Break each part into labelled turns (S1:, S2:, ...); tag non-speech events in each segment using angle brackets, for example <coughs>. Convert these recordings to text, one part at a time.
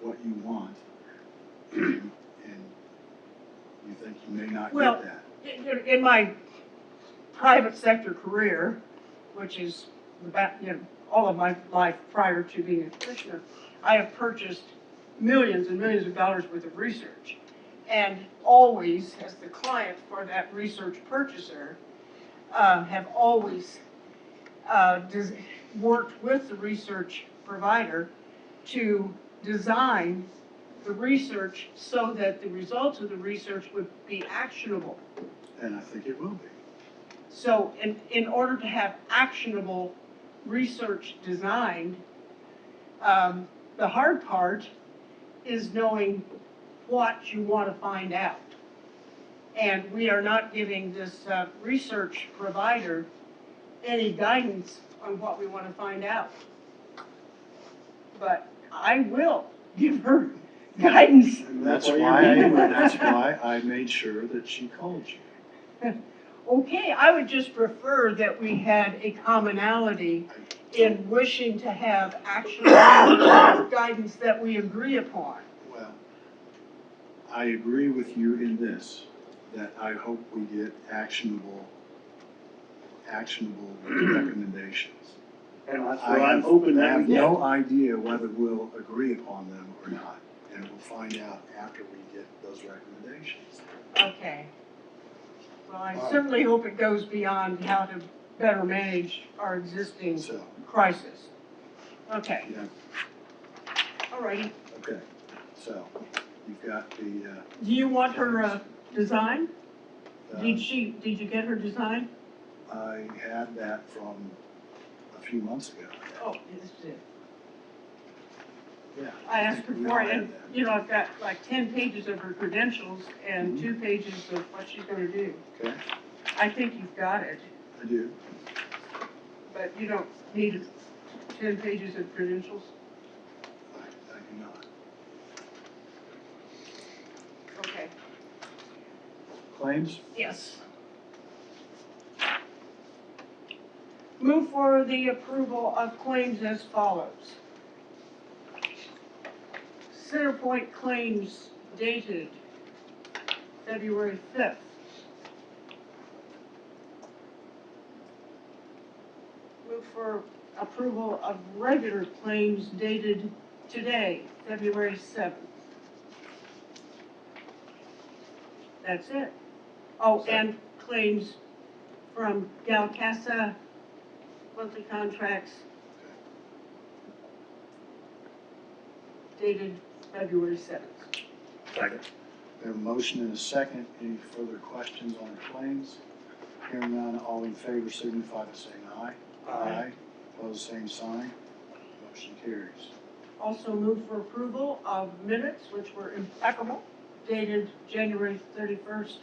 S1: what you want, <clears throat> and you think you may not
S2: Well-
S1: get that.
S2: In- In in my private sector career, which is about, you know, all of my life prior to being a commissioner, I have purchased millions and millions of dollars worth of research. And always, as the client for that research purchaser, uh, have always uh, des- worked with the research provider to design the research so that the results of the research would be actionable.
S1: And I think it will be.
S2: So in, in order to have actionable research designed, um, the hard part is knowing what you want to find out. And we are not giving this, uh, research provider any guidance on what we want to find out. But I will give her <laughs> guidance.
S1: And that's
S3: That's
S1: why,
S3: why
S1: I-
S3: you're- <laughs>
S1: that's why I made sure that she called you.
S2: Okay, I would just prefer that we had a commonality in wishing to have actual <coughs> guidance that we agree upon.
S1: Well, I agree with you in this, that I hope we get actionable, actionable recommendations.
S3: And that's
S1: I
S3: what I'm
S1: have-
S3: hoping that we
S1: I have
S3: get.
S1: no idea whether we'll agree upon them or not, and we'll find out after we get those recommendations.
S2: Okay. Well, I certainly hope it goes beyond how to better manage our existing
S1: So,
S2: crisis. Okay,
S1: yeah,
S2: all righty.
S1: okay, so you've got the, uh,
S2: Do you want her, uh, design? Did
S1: uh, um,
S2: she, did you get her design?
S1: I had that from a few months ago.
S2: Oh, yes, it is.
S1: Yeah.
S2: I asked her
S1: We
S2: for
S1: all
S2: it,
S1: had
S2: and,
S1: that.
S2: you know, I've got like ten pages of her credentials and two pages of what she's gonna do.
S1: Okay,
S2: I think you've got it,
S1: I do.
S2: but you don't need ten pages of credentials,
S1: I I do not.
S2: okay?
S1: Claims?
S2: Yes. Move for the approval of claims as follows. Centerpoint claims dated February fifth. Move for approval of regular claims dated today, February seventh. That's it. Oh, and claims from Galcasa, monthly contracts dated February seventh.
S1: We have a motion and a second. Any further questions on the claims? Hearing none, all in favor signify by saying aye. Aye. Opposed, same sign. Motion carries.
S2: Also move for approval of minutes which were impeccable dated January thirty-first.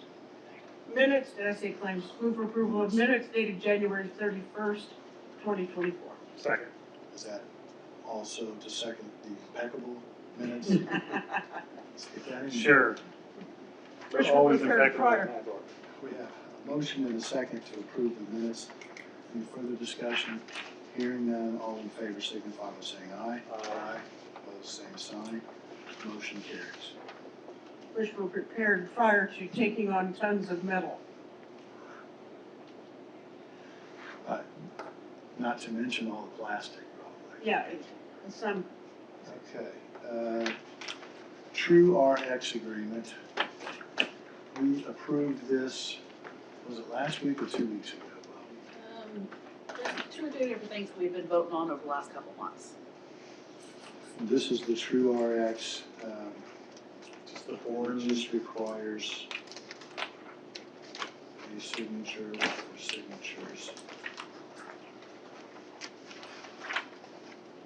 S2: Minutes, did I say claims? Move for approval of minutes dated January thirty-first, twenty twenty-four. <laughs>
S3: Second.
S1: Is that also to second the impeccable minutes?
S2: Mm.
S1: Let's get that in.
S3: Sure.
S2: Which
S3: They're
S2: one
S3: always
S2: was heard
S3: effective
S2: prior?
S3: in that order.
S1: We have a motion and a second to approve the minutes. Any further discussion? Hearing none, all in favor signify by saying aye.
S3: Aye.
S1: Opposed, same sign. Motion carries.
S2: which were prepared prior to taking on tons of metal.
S1: Not to mention all the plastic, probably.
S2: Yeah, it- and some
S1: Okay, uh, True RX agreement. We approved this, was it last week or two weeks ago? Bobby?
S4: Um, There's two or three different things that we've been voting on over the last couple months.
S1: This is the True RX, um, orange just requires a signature or signatures.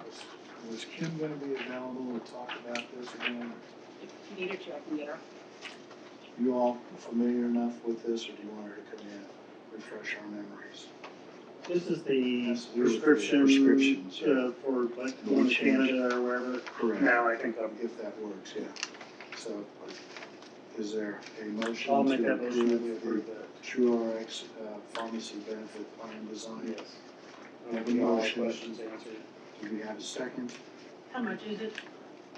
S1: Was- Was Kim gonna be available to talk about this again?
S4: If you need her to, I can get her.
S1: You all familiar enough with this, or do you want her to come in, refresh our memories?
S3: This is the
S1: That's the
S3: prescription,
S1: prescriptions, yeah.
S3: uh, for like going to Canada or wherever. Now, I think I'm,
S1: If that works, yeah. So, is there a motion?
S3: I'll make
S1: to
S3: that motion that we
S1: approve
S3: approve that.
S1: the True Rx uh, pharmacy benefit plan design?
S3: Yes.
S1: Make a
S3: And all
S1: motion.
S3: questions answered.
S1: Do we have a second?
S2: How much is it?